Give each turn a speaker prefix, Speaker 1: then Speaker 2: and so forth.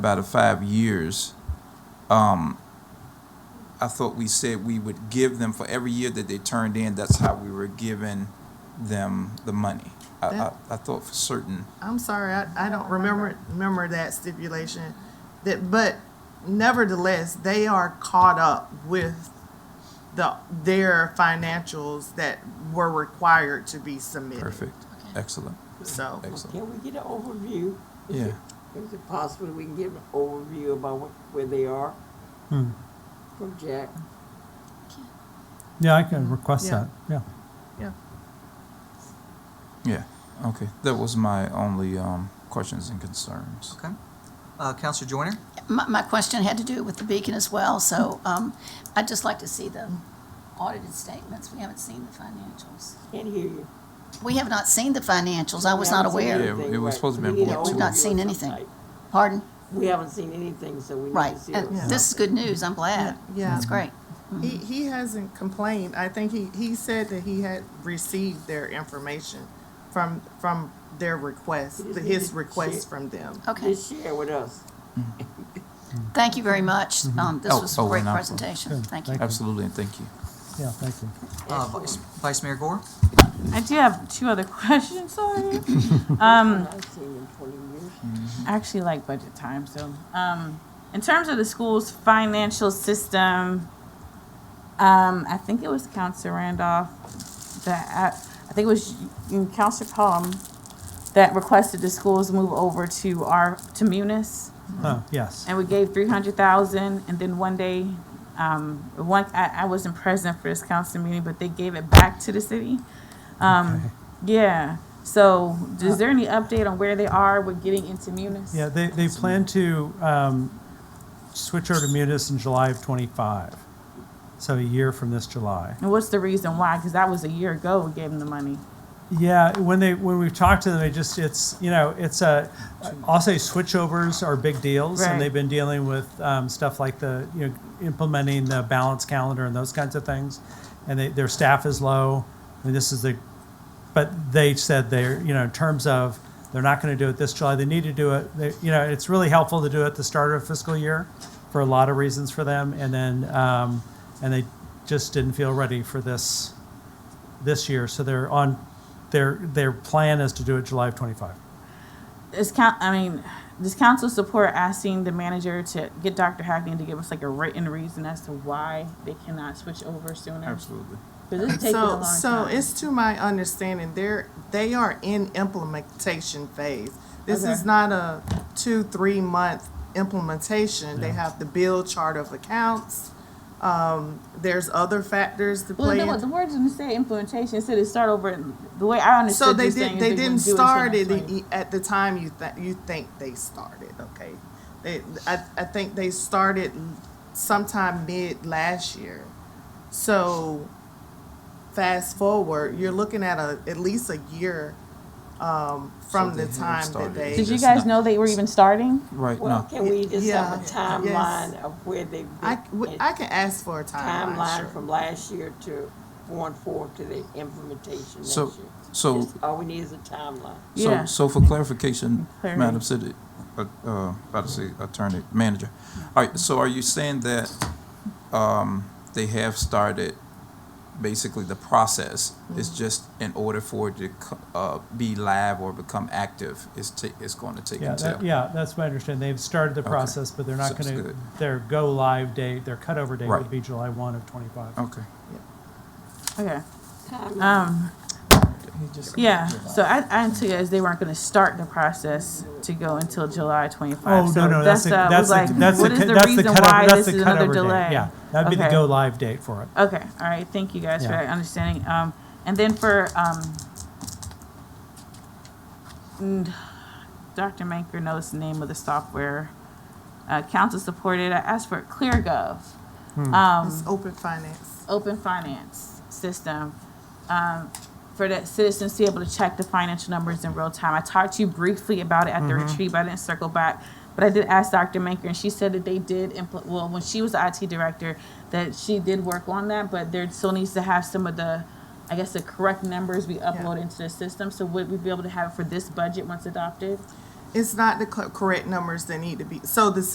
Speaker 1: about the five years, um, I thought we said we would give them for every year that they turned in, that's how we were giving them the money. I, I,
Speaker 2: That-
Speaker 1: I thought for certain,
Speaker 2: I'm sorry, I, I don't remember, remember that stipulation. That, but nevertheless, they are caught up with the, their financials that were required to be submitted,
Speaker 1: perfect, excellent,
Speaker 2: so.
Speaker 1: excellent,
Speaker 3: Can we get an overview? Is
Speaker 1: yeah.
Speaker 3: it- Is it possible we can get an overview about wh- where they are? From Jack?
Speaker 4: Yeah, I can request
Speaker 2: Yeah.
Speaker 4: that, yeah.
Speaker 1: Yeah, okay. That was my only um, questions and concerns.
Speaker 5: Okay. Uh, Counselor Joyner?
Speaker 6: My, my question had to do with the beacon as well, so, um, I'd just like to see the audited statements. We haven't seen the financials.
Speaker 3: Can't hear you.
Speaker 6: We have not seen the financials. I was not aware.
Speaker 1: Yeah, it was supposed to be
Speaker 3: We need an
Speaker 1: important.
Speaker 6: We've not
Speaker 3: overview
Speaker 6: seen
Speaker 3: of some
Speaker 6: anything.
Speaker 3: type.
Speaker 6: Pardon?
Speaker 3: We haven't seen anything, so we need
Speaker 6: Right. Uh,
Speaker 3: to see.
Speaker 6: And
Speaker 3: it.
Speaker 6: this is good news. I'm glad.
Speaker 2: Yeah.
Speaker 6: That's great.
Speaker 2: He, he hasn't complained. I think he, he said that he had received their information from, from their request,
Speaker 3: He just
Speaker 2: his
Speaker 3: needed
Speaker 2: request
Speaker 3: shit.
Speaker 2: from them.
Speaker 6: Okay. Oh,
Speaker 3: Just share with us.
Speaker 6: Thank you very much.
Speaker 3: Mm-hmm.
Speaker 6: Um, this
Speaker 1: Oh,
Speaker 6: was
Speaker 1: oh,
Speaker 6: a great
Speaker 1: and I'll-
Speaker 6: presentation.
Speaker 4: Good.
Speaker 6: Thank you.
Speaker 4: Thank
Speaker 1: Absolutely, and thank you.
Speaker 4: Yeah, thank you.
Speaker 3: Mm-hmm.
Speaker 5: Uh, Vice, Vice Mayor Gore?
Speaker 7: I do have two other questions, sorry.
Speaker 3: I've seen in twenty years.
Speaker 7: I actually like budget time, so. Um, in terms of the school's financial system, um, I think it was Counselor Randolph that, uh, I, I think it was you- Counselor Palm that requested the schools move over to our, to Munis.
Speaker 4: Oh, yes.
Speaker 7: And we gave three hundred thousand, and then one day, um, one, I, I wasn't present for this council meeting, but they gave it back to the city.
Speaker 4: Okay. Uh,
Speaker 7: Um, yeah, so is there any update on where they are with getting into Munis?
Speaker 4: Yeah, they, they plan to um, switch over to Munis in July of '25, so a year from this July.
Speaker 7: And what's the reason why? Because that was a year ago we gave them the money.
Speaker 4: Yeah, when they, when we talked to them, they just, it's, you know, it's a, I'll say switchovers are big deals.
Speaker 7: Right.
Speaker 4: And they've been dealing with um, stuff like the, you know, implementing the balance calendar and those kinds of things. And they, their staff is low. I mean, this is the, but they said they're, you know, in terms of, they're not going to do it this July, they need to do it. They, you know, it's really helpful to do it at the start of fiscal year for a lot of reasons for them. And then, um, and they just didn't feel ready for this, this year, so they're on, their, their plan is to do it July of twenty-five.
Speaker 7: Is coun I mean, does council support asking the manager to get Dr. Hackney to give us like a written reason as to why they cannot switch over sooner?
Speaker 1: Absolutely.
Speaker 7: Because it's taking a
Speaker 2: So,
Speaker 7: long time.
Speaker 2: so it's to my understanding, they're, they are in implementation phase. This is
Speaker 7: Okay.
Speaker 2: not a two, three month implementation. They have to build chart of accounts. Um, there's other factors to
Speaker 7: Well,
Speaker 2: play
Speaker 7: no, what the
Speaker 2: in.
Speaker 7: words didn't say implementation. It said it start over. The way I understood
Speaker 2: So they
Speaker 7: you saying
Speaker 2: did,
Speaker 7: is
Speaker 2: they didn't
Speaker 7: wouldn't do
Speaker 2: start
Speaker 7: until
Speaker 2: it
Speaker 7: next
Speaker 2: i- at the time you thi- you think they started, okay? They, I, I think they started sometime mid last year. So fast forward, you're looking at a, at least a year, um, from
Speaker 1: So
Speaker 2: the
Speaker 1: they haven't
Speaker 2: time that
Speaker 1: started.
Speaker 2: they.
Speaker 7: week. Did you
Speaker 1: It's
Speaker 7: guys
Speaker 1: not-
Speaker 7: know they were even starting?
Speaker 1: Right,
Speaker 3: Well,
Speaker 1: no,
Speaker 3: can we just have a
Speaker 2: Yeah.
Speaker 3: timeline of where they've been?
Speaker 2: I, w- I can ask for a timeline,
Speaker 3: Timeline
Speaker 2: sure.
Speaker 3: from last year to going forward to the implementation next year.
Speaker 1: So- so-
Speaker 3: Just All we need is a timeline.
Speaker 1: so,
Speaker 7: Yeah.
Speaker 1: so for clarification,
Speaker 7: Clarity.
Speaker 1: Madam City, uh, uh, about to say attorney, manager. All right, so are you saying that, um, they have started basically the process? It's just in order for it to, co- uh, be live or become active, it's ta, it's going to take
Speaker 4: Yeah,
Speaker 1: until.
Speaker 4: that, yeah, that's my understanding. They've started the
Speaker 1: Okay.
Speaker 4: process, but they're not
Speaker 1: Sounds
Speaker 4: going to,
Speaker 1: good.
Speaker 4: their go-live date, their cutover date
Speaker 1: Right. Oh.
Speaker 4: would be July one of twenty-five.
Speaker 1: Okay.
Speaker 7: Okay.
Speaker 3: Timeline.
Speaker 7: Um. Yeah. So I, I took it as they weren't going to start the process to go until July 25.
Speaker 4: Oh,
Speaker 7: so
Speaker 4: no, no, that's, the-
Speaker 7: uh,
Speaker 4: that's,
Speaker 7: was like,
Speaker 4: the- that's, the
Speaker 7: what is
Speaker 4: cu-
Speaker 7: the
Speaker 4: that's the
Speaker 7: reason
Speaker 4: cutover,
Speaker 7: why
Speaker 4: that's
Speaker 7: this
Speaker 4: the
Speaker 7: is another
Speaker 4: cutover date.
Speaker 7: delay?
Speaker 4: Yeah, that'd be the
Speaker 7: Okay.
Speaker 4: go-live date for it.
Speaker 7: Okay, all right, thank you guys for
Speaker 4: Yeah.
Speaker 7: that understanding. Um, and then for, um, mm, Dr. Manker knows the name of the software. Uh, council supported, I asked for ClearGov,
Speaker 2: It's open finance.
Speaker 7: open finance system. Um, for the citizens to be able to check the financial numbers in real time. I talked to you briefly about it at the retreat, but I didn't circle back. But I did ask Dr. Manker and she said that they did impl- well, when she was the IT director, that she did work on that, but there still needs to have some of the, I guess, the correct numbers we upload into the system. So would we be able to have it for this budget once adopted?
Speaker 2: It's not the co- correct numbers that need to be, so the